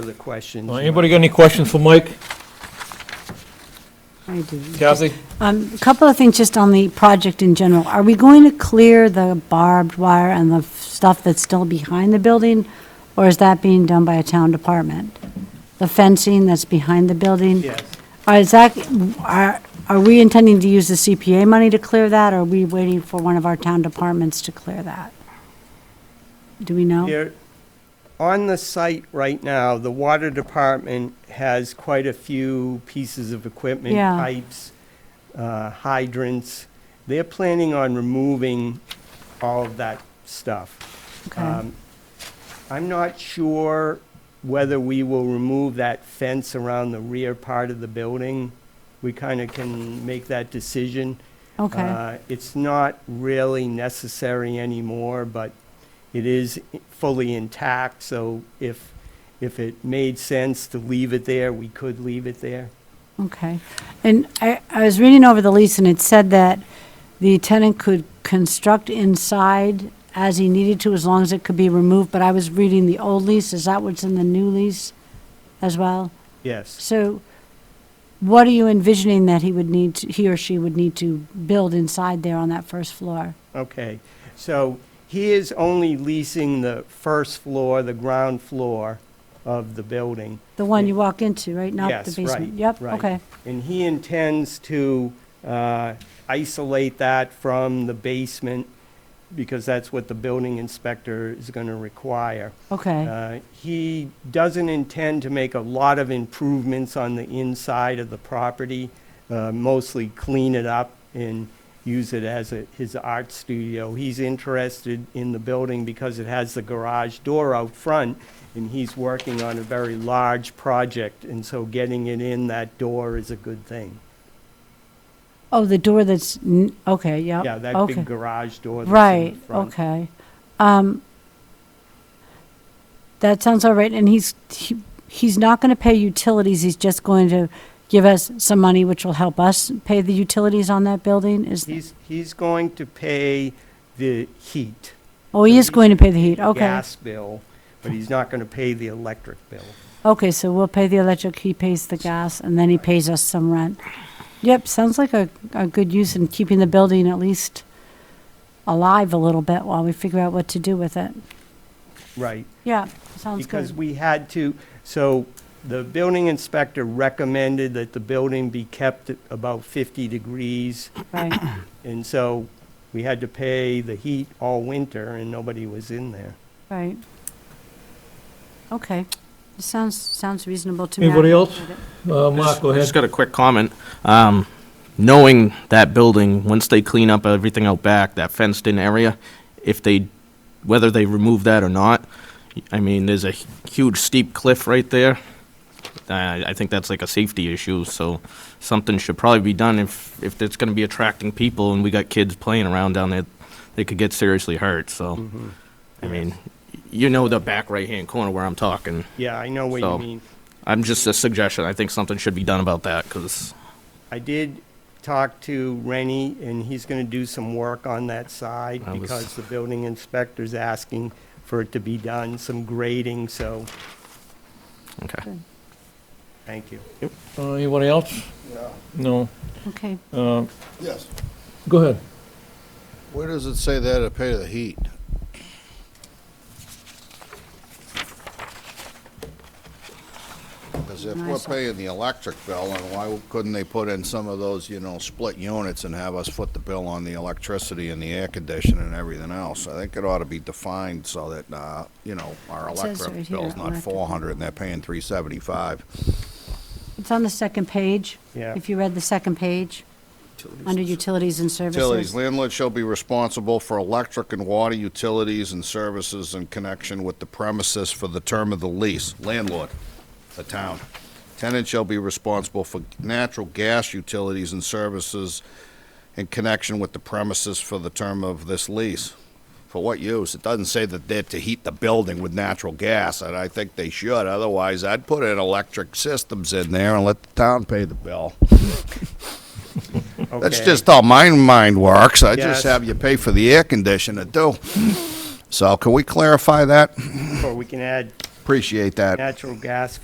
Other questions? Uh, Anybody got any questions for Mike? I do. Kathy? Um, A couple of things just on the project in general. Are we going to clear the barbed wire and the stuff that's still behind the building? Or is that being done by a town department? The fencing that's behind the building? Yes. Are- Is that, are, are we intending to use the CPA money to clear that? Or are we waiting for one of our town departments to clear that? Do we know? There- On the site right now, the water department has quite a few pieces of equipment, Yeah. pipes, uh, hydrants. They're planning on removing all of that stuff. Okay. Um, I'm not sure whether we will remove that fence around the rear part of the building. We kind of can make that decision. Okay, Uh, It's not really necessary anymore, but it is i- fully intact, so if, if it made sense to leave it there, we could leave it there. okay. And I, I was reading over the lease and it said that the tenant could construct inside as he needed to, as long as it could be removed, but I was reading the old lease, is that what's in the new lease as well? Yes. So what are you envisioning that he would need, to- he or she would need to build inside there on that first floor? Okay. So he is only leasing the first floor, the ground floor of the building. The one you walk into, right? Not the Yes, right, basement? Yep, right. okay, And he intends to uh, isolate that from the basement, because that's what the building inspector is going to require. okay, Uh, He doesn't intend to make a lot of improvements on the inside of the property, uh, mostly clean it up and use it as a- his art studio. He's interested in the building because it has the garage door out front, and he's working on a very large project, and so getting it in that door is a good thing. oh, the door that's, n- okay, yep. Yeah, that okay. big garage door that's in Right, the front. okay. Um, That sounds all right, and he's, he- he's not going to pay utilities, he's just going to give us some money, which will help us pay the utilities on that building, is, He's, he's going to pay the heat. oh, he is going to pay the heat, okay. Gas bill, but he's not going to pay the electric bill. Okay, so we'll pay the electric, he pays the gas, and then he pays us some rent. Yep, sounds like a, a good use in keeping the building at least alive a little bit while we figure out what to do with it. Right. Yeah, sounds Because good. we had to, so the building inspector recommended that the building be kept at about 50 degrees. Right. And so we had to pay the heat all winter and nobody was in there. Right. Okay. This sounds, sounds reasonable to me. I Anybody else? appreciate it. Uh, Mark, go I ahead. Just got a quick comment. Um, knowing that building, once they clean up everything out back, that fenced-in area, if they, whether they remove that or not, I mean, there's a huge steep cliff right there. I, I think that's like a safety issue, so something should probably be done if, if it's gonna be attracting people and we got kids playing around down there, they could get seriously hurt, so, I Mm-hmm. mean, you know the back right-hand corner where I'm talking. Yeah, I know what you So- mean. I'm just a suggestion. I think something should be done about that, because I did talk to Rennie and he's going to do some work on that side I was- because the building inspector's asking for it to be done, some grading, so Okay. thank you. Uh, Anybody else? No. Okay. Uh, Yes. Go ahead. Where does it say that to pay the heat? Because if we're Nice. paying the electric bill, then why couldn't they put in some of those, you know, split units and have us foot the bill on the electricity and the air conditioning and everything else? I think it ought to be defined so that, uh, you know, our It says right electric here, bill's not electric. four hundred and they're paying three seventy-five. It's on the second page. Yeah. If you read the second page, under utilities and Utilities, services. landlord shall be responsible for electric and water utilities and services in connection with the premises for the term of the lease. Landlord, the town. Tenant shall be responsible for natural gas utilities and services in connection with the premises for the term of this lease. For what use? It doesn't say that they're to heat the building with natural gas, and I think they should. Otherwise, I'd put in electric systems in there and let the town pay the bill. That's Okay. just how my mind works. I Yes. just have you pay for the air conditioner too. So can we clarify that? Or we can add Appreciate that. natural gas